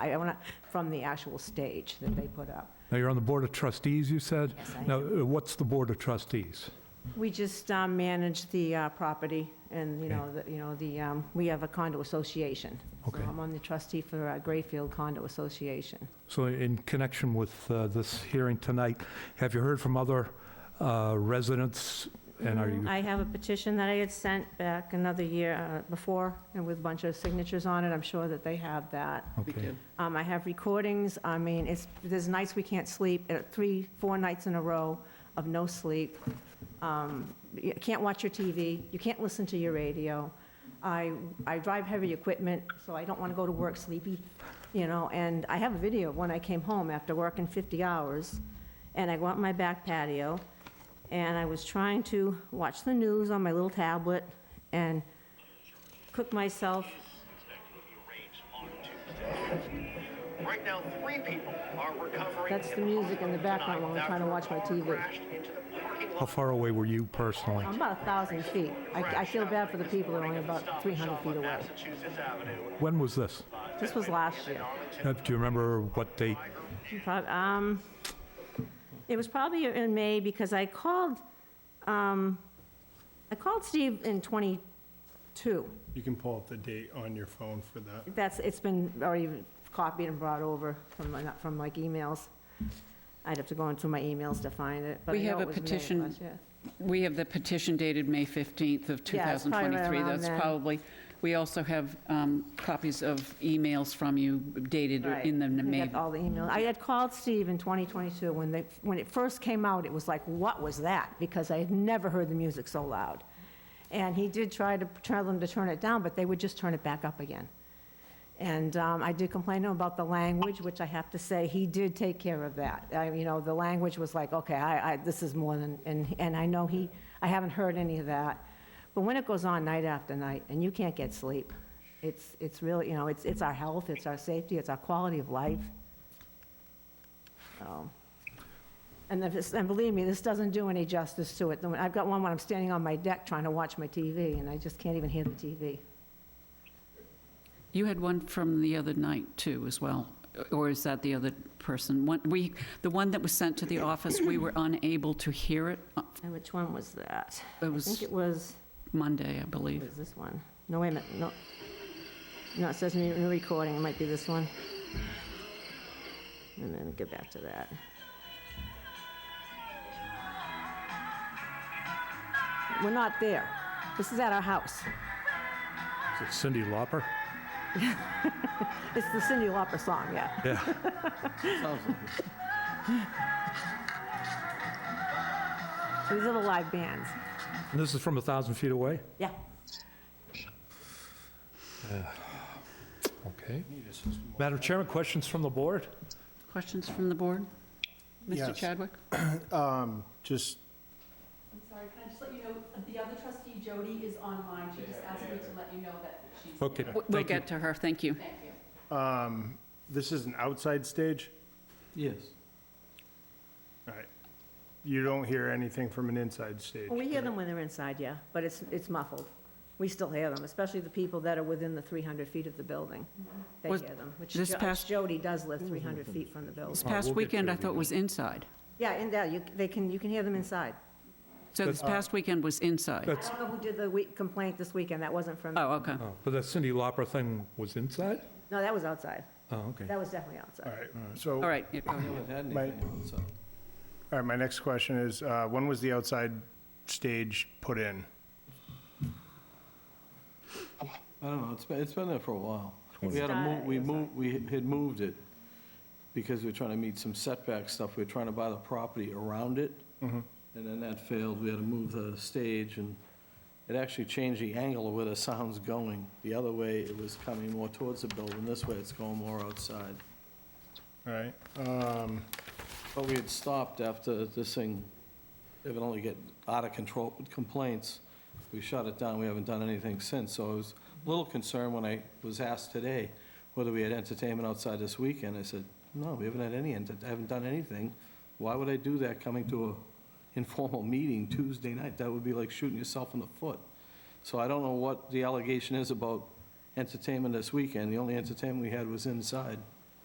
I want to, from the actual stage that they put up. Now, you're on the Board of Trustees, you said? Yes, I Now, uh, what's the Board of Trustees? We just um, manage the uh, property and, you know, the, you know, the, um, we have a condo association. So Okay. I'm on the trustee for uh, Grayfield Condo Association. So in connection with uh, this hearing tonight, have you heard from other uh, residents? And are you, I have a petition that I had sent back another year uh, before, and with a bunch of signatures on it, I'm sure that they have that. okay. Um, I have recordings, I mean, it's, there's nights we can't sleep, uh, three, four nights in a row of no sleep. Um, You can't watch your TV, you can't listen to your radio. I, I drive heavy equipment, so I don't want to go to work sleepy, you know, and I have a video of when I came home after working 50 hours, and I go out in my back patio, and I was trying to watch the news on my little tablet and cook myself Right now, three people are recovering. That's the in music in the hospital background tonight while I'm trying to watch my after a car TV. crashed into the parking lot How far away were you personally? I'm about a 1,000 feet. I I feel bad for the people that are only about 300 feet away. Massachusetts Avenue. When was this? This was last year. Uh, Do you remember what date? Prob- um, It was probably in May because I called, um, I called Steve in '22. You can pull up the date on your phone for that. That's, it's been already copied and brought over from, my- from like emails. I'd have to go into my emails to find it, but I We have know it a was May of petition last year. We have the petition dated May 15th of Yeah, it's probably right 2023. around That's then. probably, we also have um, copies of emails from you dated Right. in the I May. got all the emails. I had called Steve in 2022, when they, when it first came out, it was like, what was that? Because I had never heard the music so loud. And he did try to, tell them to turn it down, but they would just turn it back up again. And um, I did complain to him about the language, which I have to say, he did take care of that. I- You know, the language was like, okay, I, I, this is more than, and, and I know he, I haven't heard any of that. But when it goes on night after night, and you can't get sleep, it's, it's really, you know, it's, it's our health, it's our safety, it's our quality of life. So, And if it's, and believe me, this doesn't do any justice to it. I've got one when I'm standing on my deck trying to watch my TV, and I just can't even hear the TV. You had one from the other night, too, as well, or is that the other person? One- We, the one that was sent to the office, we were unable to hear it. Uh, And which one was that? It I think was it was, Monday, I it believe. was this one. No, wait a minute, no. No, it says new new recording, it might be this one. And then get back to that. We're not there. This is at our house. Is it Cindy Lauper? It's the Cindy Lauper song, yeah. Yeah. These are the live bands. And this is from a 1,000 feet away? Yeah. Okay. Madam Chairman, questions from the board? Questions from the board? Mr. Yes. Chadwick? Um, Just, I'm sorry, can I just let you know, the other trustee, Jody, is online. She just asked me to let you know that she's. Okay, W- We'll thank you. get to her, thank you. Thank you. um, this is an outside stage? Yes. All right. You don't hear anything from an inside stage? Well, we hear correct? them when they're inside, yeah, but it's, it's muffled. We still hear them, especially the people that are within the 300 feet of the building. They hear Was- them, which this Jo- past- Jody does live 300 feet from the This building. past we'll get to weekend, I it. thought was inside. Yeah, in there, you, they can, you can hear them inside. So this past weekend was inside. I don't know who did the week- complaint this weekend, that wasn't from, no, Oh, okay. Oh, But that Cindy Lauper thing was inside? that was outside. Oh, okay. That was definitely All outside. right, so, All all right, yeah, go ahead. haven't had My- anything on, so. right, my next question is, uh, when was the outside stage put in? I don't know, it's been, it's been there for a while. It's We had to not- move, we it's not- moved, we had moved it because we were trying to meet some setback stuff. We were trying to buy the property around it. Mm-hmm. And then that failed. We had to move the stage and it actually changed the angle of where the sound's going. The other way, it was coming more towards the building. This way, it's going more outside. All right, um, But we had stopped after this thing evidently get out of control with complaints. We shut it down, we haven't done anything since, so I was a little concerned when I was asked today whether we had entertainment outside this weekend. I said, no, we haven't had any, ent- I haven't done anything. Why would I do that coming to a informal meeting Tuesday night? That would be like shooting yourself in the foot. So I don't know what the allegation is about entertainment this weekend. The only entertainment we had was inside.